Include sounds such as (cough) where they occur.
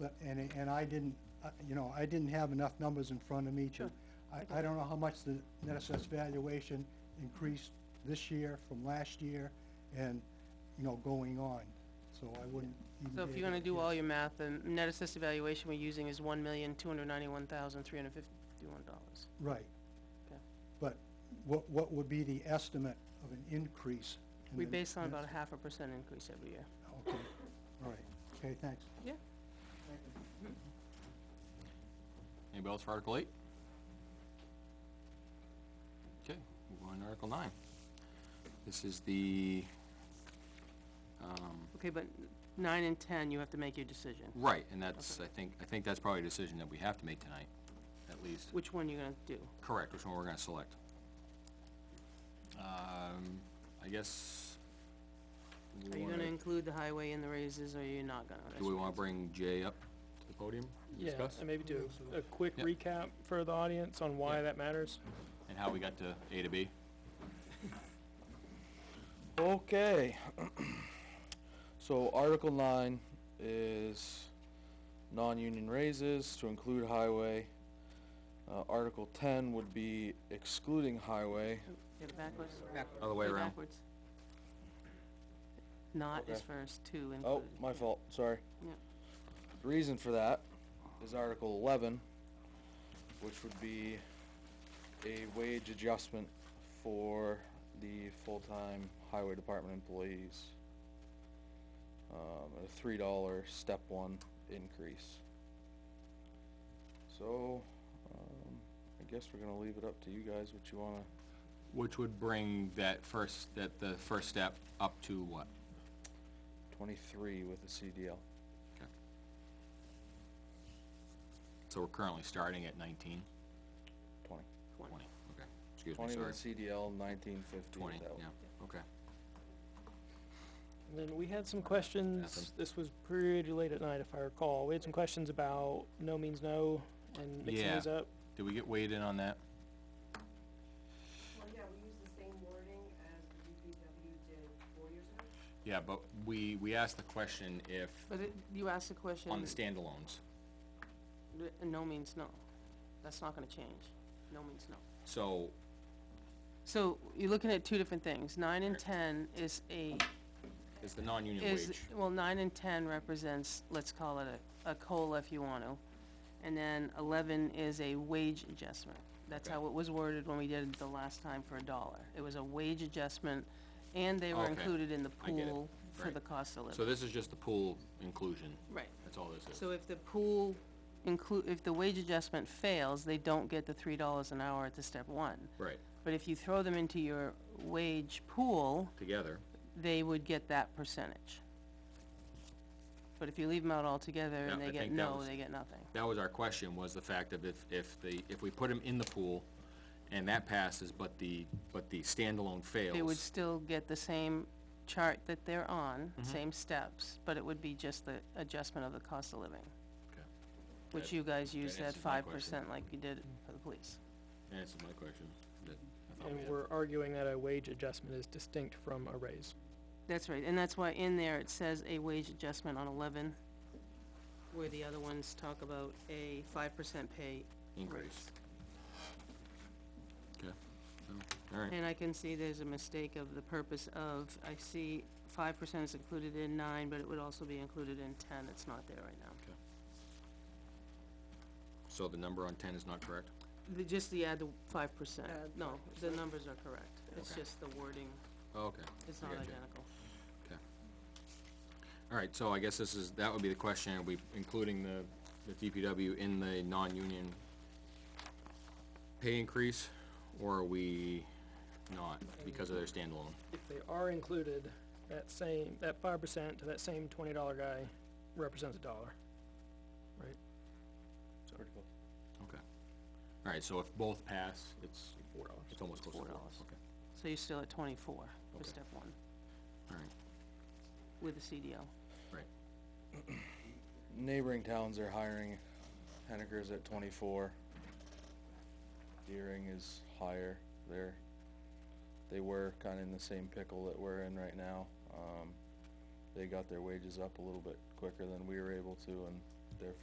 But, and, and I didn't, uh, you know, I didn't have enough numbers in front of me to, I, I don't know how much the net assessed valuation increased this year from last year and, you know, going on, so I wouldn't even. So if be you're gonna able to do all guess. your math, the net assessed evaluation we're using is one million, two hundred ninety-one thousand, three hundred fifty-one dollars. Right. Okay. But what, what would be the estimate of an increase? in We the base on about a net- half a percent increase every year. Okay, all right, okay, thanks. Yeah. Anybody else for Article eight? Okay, move on to Article nine. This is the, um, Okay, but nine and ten, you have to make your decision. right, and that's, I think, I think that's probably a decision that we have to make tonight, at least. Which one you're gonna do? Correct, which one we're gonna select. Um, I guess. we Are you wanna- gonna include the highway in the raises, or you're not gonna? That's Do we what wanna I'm bring Jay up to the podium to Yeah, discuss? and maybe do a- a quick Yeah. recap for the audience on why Yeah. that matters. And how we got to A to B? Okay. (clears throat) So Article nine is non-union raises to include highway. Uh, Article ten would be excluding highway. saying. Get it backwards? Other way Go around. backwards. Not is Okay. first, two included. Oh, my fault, sorry. Yeah. The reason for that is Article eleven, which would be a wage adjustment for the full-time highway department employees. Um, a three dollar step one increase. So, um, I guess we're gonna leave it up to you guys what you wanna, Which would bring that first, that the first step up to what? twenty-three with the CDL. So we're currently starting at nineteen? Twenty. One. Twenty, okay. Excuse me, Twenty sorry. with CDL, nineteen fifty Twenty, without. yeah, okay. And then we had some questions, Nothing. this was pretty late at night if I recall, we had some questions about no means no and mixing Yeah. these up. Did we get weighed in on that? Well, yeah, we use the same wording as the DPW did four years ago. Yeah, but we, we asked the question if, But it, you asked the question. on the standalones. th- No means no. That's not gonna change. No means no. So, So you're looking at two different things. Nine and ten is a, is the non-union is, wage, well, nine and ten represents, let's call it a, a COLA if you want to. And then eleven is a wage adjustment. That's Okay. how it was worded when we did it the last time for a dollar. It was a wage adjustment, and they were Okay. included in the I get it. pool for Right. the cost of so living. this is just the pool inclusion, Right. that's all this is. So if the pool include, if the wage adjustment fails, they don't get the three dollars an hour at the step one. Right, But if you throw them into your wage pool, together, they would get that percentage. But if you leave them out altogether and Yeah, I they get think that no, was- they get nothing. that was our question, was the fact of if, if the, if we put them in the pool and that passes, but the, but the standalone They would fails, still get the same chart that they're on, Mm-hmm. same steps, but it would be just the adjustment of the cost of living. Okay. Which That- you guys use that answers my five question. percent like you did for the police. answers my question, that I thought we And had. we're arguing that a wage adjustment is distinct from a raise. That's right, and that's why in there it says a wage adjustment on eleven, where the other ones talk about a five percent pay increase. Okay, all right, And I can see there's a mistake of the purpose of, I see five percent is included in nine, but it would also be included in ten, it's not there right now. so the number on ten is not correct? The, just the add the five percent, Add no, the numbers are correct, it's Okay. just the wording, Oh, Okay. it's I not gotcha. identical. All right, so I guess this is, that would be the question, are we including the, the DPW in the non-union pay increase, or are we not, because of their standalone? If they are included, that same, that five percent to that same twenty dollar guy represents a dollar. Okay. All right, so if both pass, it's, Four dollars. it's almost close to four. $4. Okay, So you're still at twenty-four for Okay. step one, all right, with the CDL. neighboring towns are hiring Henniker's at twenty-four. Deering is higher. They're, they were kinda in the same pickle that we're in right now. Um, they got their wages up a little bit quicker than we were able to and